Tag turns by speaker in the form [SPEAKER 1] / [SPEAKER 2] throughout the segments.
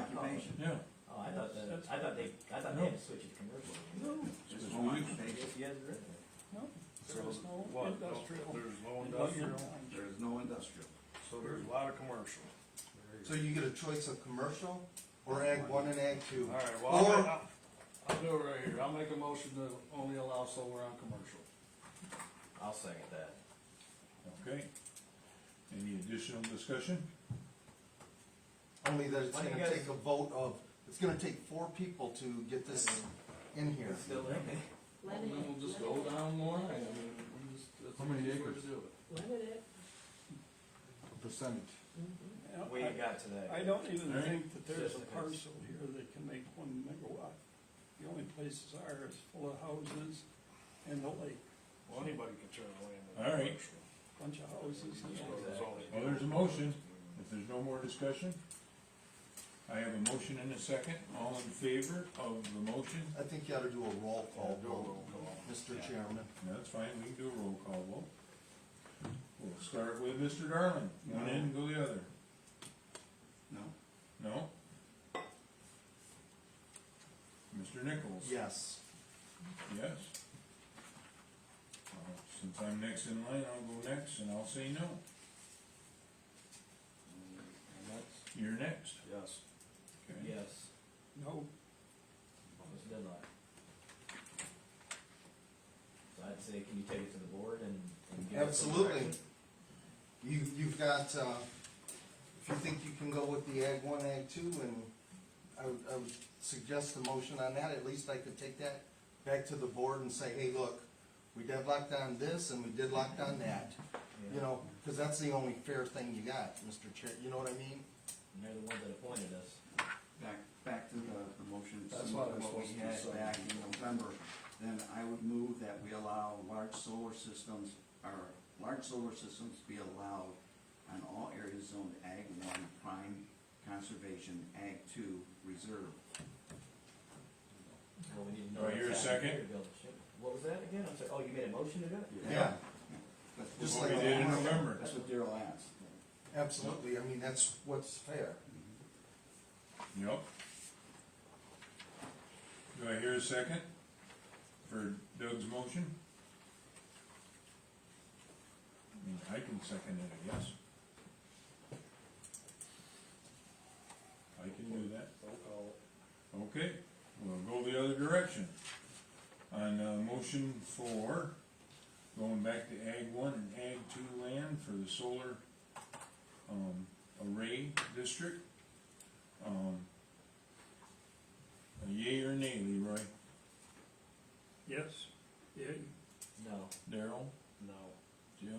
[SPEAKER 1] commercial.
[SPEAKER 2] yeah.
[SPEAKER 1] Oh, I thought that,
[SPEAKER 2] That's-
[SPEAKER 1] I thought they, I thought they had to switch it to commercial.
[SPEAKER 3] It's one page.
[SPEAKER 1] Yes, you had it written.
[SPEAKER 2] There is no
[SPEAKER 4] What, no,
[SPEAKER 2] industrial.
[SPEAKER 4] there's no
[SPEAKER 2] in what you're
[SPEAKER 4] industrial,
[SPEAKER 2] doing.
[SPEAKER 3] There's no industrial.
[SPEAKER 4] so there's a lot of commercial.
[SPEAKER 5] So you get a choice of commercial or ag one and ag two.
[SPEAKER 4] Alright, well, I'll,
[SPEAKER 5] Or-
[SPEAKER 4] I'll- I'll do it right here, I'll make a motion to only allow solar on commercial.
[SPEAKER 1] I'll second that.
[SPEAKER 2] Okay. Any additional discussion?
[SPEAKER 4] uh,
[SPEAKER 5] Only that it's
[SPEAKER 1] Why do you
[SPEAKER 5] gonna
[SPEAKER 1] guys-
[SPEAKER 5] take a vote of, it's gonna take four people to get this in here.
[SPEAKER 1] It's still,
[SPEAKER 4] Well, Then we'll just go down the line, I mean, we just, that's
[SPEAKER 6] How
[SPEAKER 4] the
[SPEAKER 6] many
[SPEAKER 4] easiest way to
[SPEAKER 6] acres?
[SPEAKER 4] do it.
[SPEAKER 7] Limit it.
[SPEAKER 6] percentage.
[SPEAKER 2] Yeah,
[SPEAKER 1] we
[SPEAKER 2] I-
[SPEAKER 1] ain't got to that.
[SPEAKER 2] I
[SPEAKER 1] yet.
[SPEAKER 2] don't even
[SPEAKER 4] Alright.
[SPEAKER 2] think that there's a
[SPEAKER 1] Just-
[SPEAKER 2] parcel here that can make one megawatt. The only places are is full of houses and the lake,
[SPEAKER 4] Well, anybody can turn away in the
[SPEAKER 2] All right.
[SPEAKER 4] commercial.
[SPEAKER 2] bunch of houses. and-
[SPEAKER 4] Just go to the zoning.
[SPEAKER 2] Well, there's a motion. If there's no more discussion, I have a motion and a second. All in favor of the motion?
[SPEAKER 5] I think you ought to do a roll call
[SPEAKER 4] Do a roll
[SPEAKER 5] vote,
[SPEAKER 4] call.
[SPEAKER 5] Mr. Chairman.
[SPEAKER 2] No, That's fine, we can do a roll call vote. We'll start with Mr. Darling, one end, go the other,
[SPEAKER 3] No?
[SPEAKER 2] no? Mr. Nichols?
[SPEAKER 5] Yes.
[SPEAKER 2] Yes. Uh, Since I'm next in line, I'll go next and I'll say no,
[SPEAKER 4] And that's-
[SPEAKER 2] you're next.
[SPEAKER 4] Yes.
[SPEAKER 2] Okay.
[SPEAKER 1] Yes,
[SPEAKER 2] No.
[SPEAKER 1] almost did I. So I'd say, can you take it to the board and? and give us some
[SPEAKER 5] Absolutely.
[SPEAKER 1] direction?
[SPEAKER 5] You, you've got, uh, if you think you can go with the ag one, ag two, and I would, I would suggest the motion on that, at least I could take that back to the board and say, hey, look, we deadlocked on this and we deadlocked on that, you know, cause that's the only fair thing you got, Mr. Chair, you know what I mean?
[SPEAKER 1] And they're the ones that appointed us.
[SPEAKER 3] Back, back to the, the motion,
[SPEAKER 4] That's
[SPEAKER 3] similar
[SPEAKER 4] what
[SPEAKER 3] to
[SPEAKER 4] I'm
[SPEAKER 3] what we
[SPEAKER 4] supposed to
[SPEAKER 3] had
[SPEAKER 4] say.
[SPEAKER 3] back in November, then I would move that we allow large solar systems, or large solar systems be allowed on all areas zoned ag one, prime conservation, ag two, reserve.
[SPEAKER 1] Well, we need to know.
[SPEAKER 2] Do I hear a
[SPEAKER 1] what's happening
[SPEAKER 2] second?
[SPEAKER 1] here to build the ship. What was that again? I'm sorry, oh, you made a motion to do it?
[SPEAKER 5] Yeah,
[SPEAKER 3] That's what-
[SPEAKER 5] Just
[SPEAKER 2] What we
[SPEAKER 5] like-
[SPEAKER 2] did in November,
[SPEAKER 3] That's what Daryl asked.
[SPEAKER 5] absolutely, I mean, that's what's fair.
[SPEAKER 2] yep. Do I hear a second for Doug's motion? I mean, I can second it, I guess. I can do that.
[SPEAKER 4] Roll call.
[SPEAKER 2] Okay, we'll go the other direction. On, uh, motion four, going back to ag one and ag two land for the solar, um, array district. Um, a yea or nay, Leroy?
[SPEAKER 4] Yes.
[SPEAKER 2] Yay.
[SPEAKER 1] No,
[SPEAKER 2] Daryl?
[SPEAKER 4] No.
[SPEAKER 2] Jim?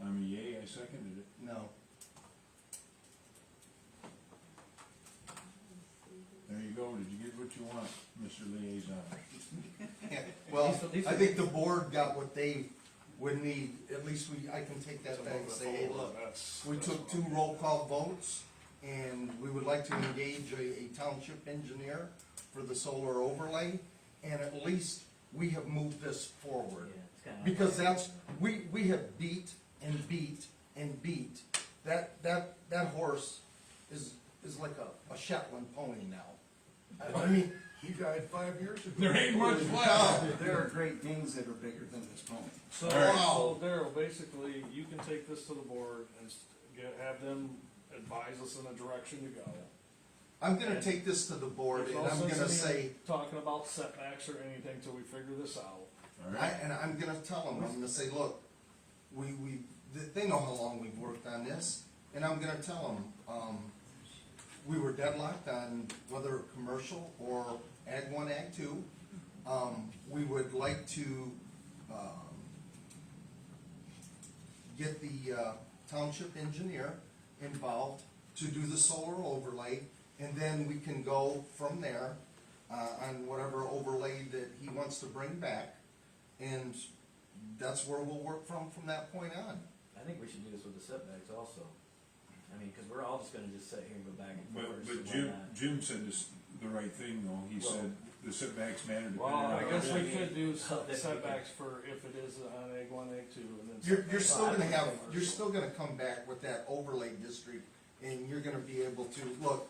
[SPEAKER 2] I'm a yea, I seconded it.
[SPEAKER 5] No,
[SPEAKER 2] There you go, did you get what you want, Mr. Liaison?
[SPEAKER 5] well,
[SPEAKER 1] These- these
[SPEAKER 5] I
[SPEAKER 1] are-
[SPEAKER 5] think the board got what they would need, at least we, I can take that back and say, hey, look,
[SPEAKER 4] That's-
[SPEAKER 5] We
[SPEAKER 4] that's
[SPEAKER 5] took
[SPEAKER 4] what
[SPEAKER 5] two
[SPEAKER 4] I'm-
[SPEAKER 5] roll call votes, and we would like to engage a, a township engineer for the solar overlay, and at least we have moved this
[SPEAKER 1] yeah,
[SPEAKER 5] forward.
[SPEAKER 1] it's kinda.
[SPEAKER 5] Because that's, we, we have beat and beat and beat, that, that, that horse is, is like a, a Shetland pony now. I mean,
[SPEAKER 6] He died five years ago.
[SPEAKER 2] There ain't much left.
[SPEAKER 5] wow,
[SPEAKER 3] There are great things that are bigger than this pony.
[SPEAKER 4] So,
[SPEAKER 2] All right.
[SPEAKER 4] so Daryl, basically, you can take this to the board and s- get, have them advise us in the direction to go.
[SPEAKER 5] I'm gonna take this to the board,
[SPEAKER 4] There's no
[SPEAKER 5] and I'm
[SPEAKER 4] sense in
[SPEAKER 5] gonna
[SPEAKER 4] me
[SPEAKER 5] say,
[SPEAKER 4] Talking about setbacks or anything till we figure this out.
[SPEAKER 2] All
[SPEAKER 5] I,
[SPEAKER 2] right,
[SPEAKER 5] and I'm gonna tell them, I'm gonna say, look, we, we, th- they know how long we've worked on this, and I'm gonna tell them, um, we were deadlocked on whether commercial or ag one, ag two. Um, we would like to, um, get the, uh, township engineer involved to do the solar overlay, and then we can go from there, uh, on whatever overlay that he wants to bring back. And that's where we'll work from, from that point on.
[SPEAKER 1] I think we should do this with the setbacks also. I mean, cause we're all just gonna just sit here and go back and
[SPEAKER 2] but,
[SPEAKER 1] forth.
[SPEAKER 2] but
[SPEAKER 1] so why
[SPEAKER 2] Jim,
[SPEAKER 1] not?
[SPEAKER 2] Jim said this, the right thing though, he said the setbacks matter depending
[SPEAKER 4] Well,
[SPEAKER 2] on.
[SPEAKER 4] I guess we could do
[SPEAKER 1] Well,
[SPEAKER 4] set-
[SPEAKER 1] that's-
[SPEAKER 4] setbacks for if it is on egg one, egg two, and then.
[SPEAKER 5] You're,
[SPEAKER 4] setbacks.
[SPEAKER 5] you're still gonna have, you're still gonna come back with that overlay district, and you're gonna be able to, look,